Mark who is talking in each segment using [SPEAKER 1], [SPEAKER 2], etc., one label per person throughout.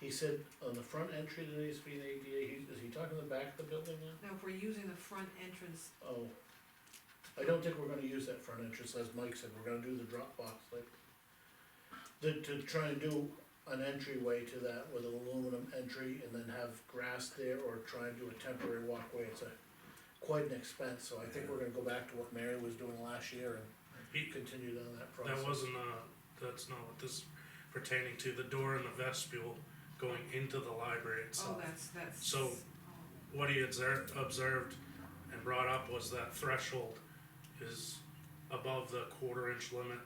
[SPEAKER 1] He said on the front entry there needs to be an ADA, he, is he talking the back of the building now?
[SPEAKER 2] Now, if we're using the front entrance,
[SPEAKER 1] Oh. I don't think we're gonna use that front entrance, as Mike said, we're gonna do the drop box, like. To, to try and do an entryway to that with an aluminum entry and then have grass there or try and do a temporary walkway, it's a. Quite an expense, so I think we're gonna go back to what Mary was doing last year
[SPEAKER 3] He,
[SPEAKER 1] and continue down that process.
[SPEAKER 3] that wasn't, uh, that's not what this is pertaining to, the door in the vestibule going into the library
[SPEAKER 2] oh,
[SPEAKER 3] itself.
[SPEAKER 2] that's, that's.
[SPEAKER 3] So- What he observed, observed and brought up was that threshold is above the quarter inch limit,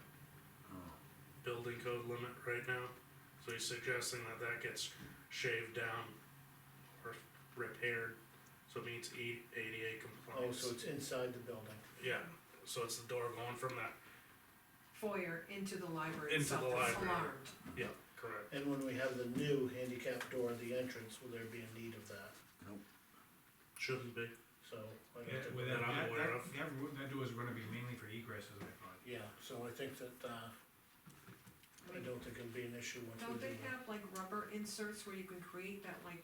[SPEAKER 3] building code limit right now. So he's suggesting that that gets shaved down or repaired, so it means E- ADA
[SPEAKER 1] Oh,
[SPEAKER 3] compliance.
[SPEAKER 1] so it's inside the building.
[SPEAKER 3] Yeah, so it's the door going from that,
[SPEAKER 2] Foyer into the library
[SPEAKER 3] Into
[SPEAKER 2] itself,
[SPEAKER 3] the
[SPEAKER 2] that's
[SPEAKER 3] library.
[SPEAKER 2] alarmed.
[SPEAKER 3] yeah, correct.
[SPEAKER 1] And when we have the new handicap door, the entrance, will there be a need of that?
[SPEAKER 3] Shouldn't be.
[SPEAKER 1] So. I don't
[SPEAKER 4] Yeah,
[SPEAKER 1] think-
[SPEAKER 4] well,
[SPEAKER 3] that
[SPEAKER 4] that,
[SPEAKER 3] I'm
[SPEAKER 4] that,
[SPEAKER 3] aware
[SPEAKER 4] that,
[SPEAKER 3] of.
[SPEAKER 4] that route- that door is gonna be mainly for egress, as I thought.
[SPEAKER 1] Yeah, so I think that, uh, I don't think it'll be an issue once we
[SPEAKER 2] Don't
[SPEAKER 1] do
[SPEAKER 2] they
[SPEAKER 1] the
[SPEAKER 2] have like rubber inserts where you can create that like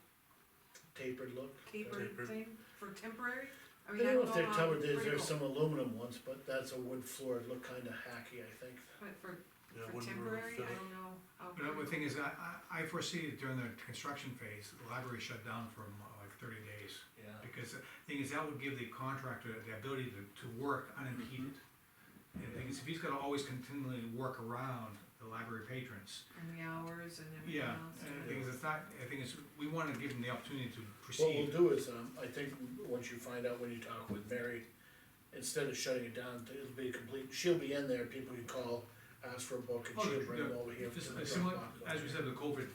[SPEAKER 1] tapered look.
[SPEAKER 2] tapered
[SPEAKER 3] Tapered.
[SPEAKER 2] thing for temporary? I
[SPEAKER 1] I
[SPEAKER 2] mean, I
[SPEAKER 1] don't know if
[SPEAKER 2] don't know
[SPEAKER 1] they're
[SPEAKER 2] how
[SPEAKER 1] covered, there's, there's
[SPEAKER 2] critical,
[SPEAKER 1] some aluminum ones, but that's a wood floor, it'd look kinda hacky, I think.
[SPEAKER 2] but for,
[SPEAKER 3] Yeah,
[SPEAKER 2] for
[SPEAKER 3] wouldn't
[SPEAKER 2] temporary, I
[SPEAKER 3] really fit.
[SPEAKER 2] don't know. how
[SPEAKER 4] But the
[SPEAKER 2] critical.
[SPEAKER 4] thing is, I, I, I foresee that during the construction phase, the library shut down for um, like thirty days.
[SPEAKER 1] Yeah.
[SPEAKER 4] Because the thing is, that would give the contractor the ability to, to work unimpeded.
[SPEAKER 2] Mm-hmm.
[SPEAKER 4] And the thing is, if he's gonna always continually work around the library patrons,
[SPEAKER 2] And the hours and everything
[SPEAKER 4] yeah.
[SPEAKER 2] else.
[SPEAKER 4] And
[SPEAKER 2] yeah.
[SPEAKER 4] the thing is, it's not, I think it's, we wanna give them the opportunity to
[SPEAKER 1] What we'll
[SPEAKER 4] proceed.
[SPEAKER 1] do is, um, I think, once you find out when you talk with Mary, instead of shutting it down, it'll be complete, she'll be in there, people can call, ask for a book, and
[SPEAKER 4] Oh,
[SPEAKER 1] she'll
[SPEAKER 4] the-
[SPEAKER 1] bring them
[SPEAKER 4] the-
[SPEAKER 1] over here.
[SPEAKER 4] This
[SPEAKER 1] to
[SPEAKER 4] is
[SPEAKER 1] the
[SPEAKER 4] similar,
[SPEAKER 1] Dropbox.
[SPEAKER 4] as we said, the COVID,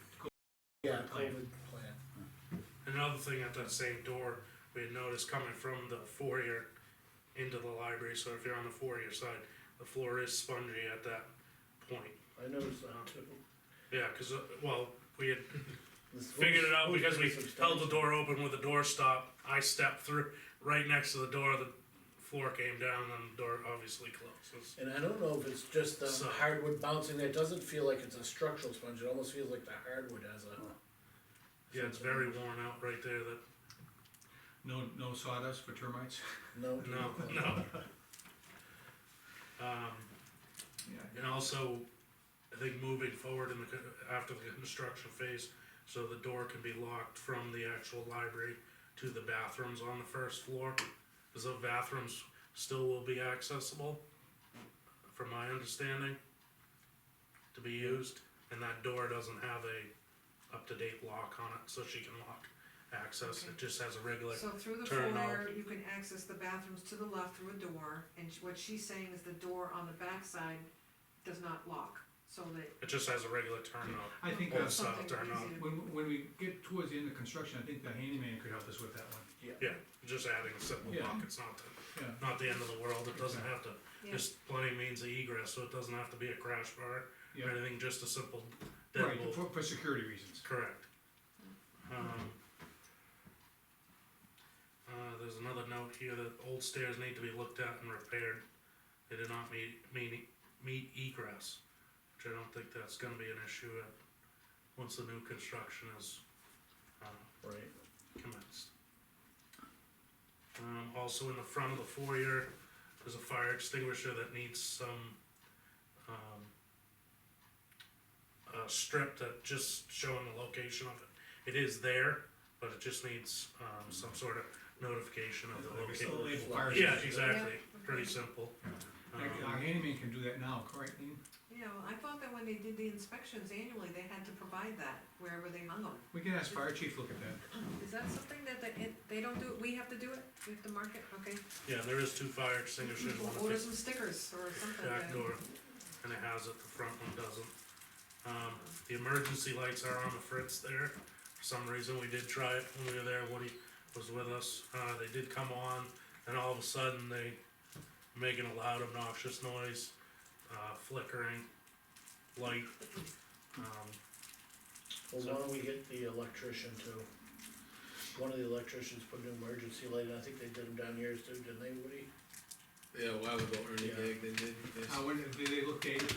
[SPEAKER 1] Yeah,
[SPEAKER 4] plan.
[SPEAKER 1] COVID plan.
[SPEAKER 3] Another thing at that same door, we had noticed coming from the foyer into the library, so if you're on the foyer side, the floor is spongy at that point.
[SPEAKER 1] I noticed that too.
[SPEAKER 3] Yeah, cause, uh, well, we had
[SPEAKER 1] This
[SPEAKER 3] figured it out
[SPEAKER 1] was-
[SPEAKER 3] because we held the
[SPEAKER 1] substantial.
[SPEAKER 3] door open with a door stop, I stepped through, right next to the door, the floor came down, and the door obviously closes.
[SPEAKER 1] And I don't know if it's just the
[SPEAKER 3] So-
[SPEAKER 1] hardwood bouncing, it doesn't feel like it's a structural sponge, it almost feels like the hardwood has a.
[SPEAKER 3] Yeah, it's very worn out right there, that,
[SPEAKER 4] no, no sawdust for termites.
[SPEAKER 1] No.
[SPEAKER 3] no, no. Um,
[SPEAKER 4] Yeah.
[SPEAKER 3] And also, I think moving forward in the, con- after the construction phase, so the door can be locked from the actual library to the bathrooms on the first floor, cause the bathrooms still will be accessible, from my understanding, to be used, and that door doesn't have a up-to-date lock on it, so she can lock access, it just has a regular,
[SPEAKER 2] So through the
[SPEAKER 3] turn off.
[SPEAKER 2] foyer, you can access the bathrooms to the left through a door, and sh- what she's saying is the door on the backside does not lock, so that
[SPEAKER 3] it just has a regular turn knob.
[SPEAKER 4] I think
[SPEAKER 3] Or
[SPEAKER 4] that's
[SPEAKER 3] stop,
[SPEAKER 2] something
[SPEAKER 3] turn off.
[SPEAKER 2] easy to-
[SPEAKER 4] When, when we get towards the end of construction, I think the handyman could help us with that one.
[SPEAKER 3] Yeah, just adding a simple
[SPEAKER 4] Yeah.
[SPEAKER 3] lock, it's not, the-
[SPEAKER 4] Yeah.
[SPEAKER 3] not the end of the world, it doesn't have to
[SPEAKER 2] Yeah.
[SPEAKER 3] Just plenty means of egress, so it doesn't have to be a crash bar or
[SPEAKER 4] Yeah,
[SPEAKER 3] anything, just a simple
[SPEAKER 4] right,
[SPEAKER 3] deadbolt,
[SPEAKER 4] for, for security reasons.
[SPEAKER 3] correct. Um, Uh, there's another note here that old stairs need to be looked at and repaired, they do not meet, meet, meet egress, which I don't think that's gonna be an issue at, once the new construction is, uh,
[SPEAKER 1] Right,
[SPEAKER 3] commenced. Um, also in the front of the foyer, there's a fire extinguisher that needs some, um, uh, strip that just showing the location of it. It is there, but it just needs, um, some sort of notification of the
[SPEAKER 4] Like it's a
[SPEAKER 3] location.
[SPEAKER 4] label fire
[SPEAKER 3] Yeah,
[SPEAKER 4] station.
[SPEAKER 3] exactly,
[SPEAKER 2] Yeah.
[SPEAKER 3] pretty simple.
[SPEAKER 4] Like,
[SPEAKER 3] Um,
[SPEAKER 4] Our handyman can do that now, correct, Lean?
[SPEAKER 2] You know, I thought that when they did the inspections annually, they had to provide that wherever they hung them.
[SPEAKER 4] We can ask fire chief look at that.
[SPEAKER 2] Is that something that they, it- they don't do, it? we have to do it? We have to mark it, okay?
[SPEAKER 3] Yeah, there is two fire extinguishers, one
[SPEAKER 2] We'll
[SPEAKER 3] at the
[SPEAKER 2] order some stickers or something.
[SPEAKER 3] back
[SPEAKER 2] then.
[SPEAKER 3] door, and it has it, the front one doesn't. Um, the emergency lights are on the fritz there, for some reason, we did try it when we were there, Woody was with us, uh, they did come on, and all of a sudden, they making a loud obnoxious noise, uh, flickering light. Um,
[SPEAKER 1] well, why don't we get the electrician to, one of the electricians put an emergency light, and I think they did them down yours too, didn't they, Woody?
[SPEAKER 5] Yeah, a while ago, Ernie
[SPEAKER 1] Yeah.
[SPEAKER 5] Gagg, they did this.
[SPEAKER 4] Uh, when, do they look dated?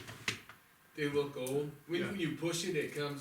[SPEAKER 5] They look old. When
[SPEAKER 4] Yeah.
[SPEAKER 5] you push it, it comes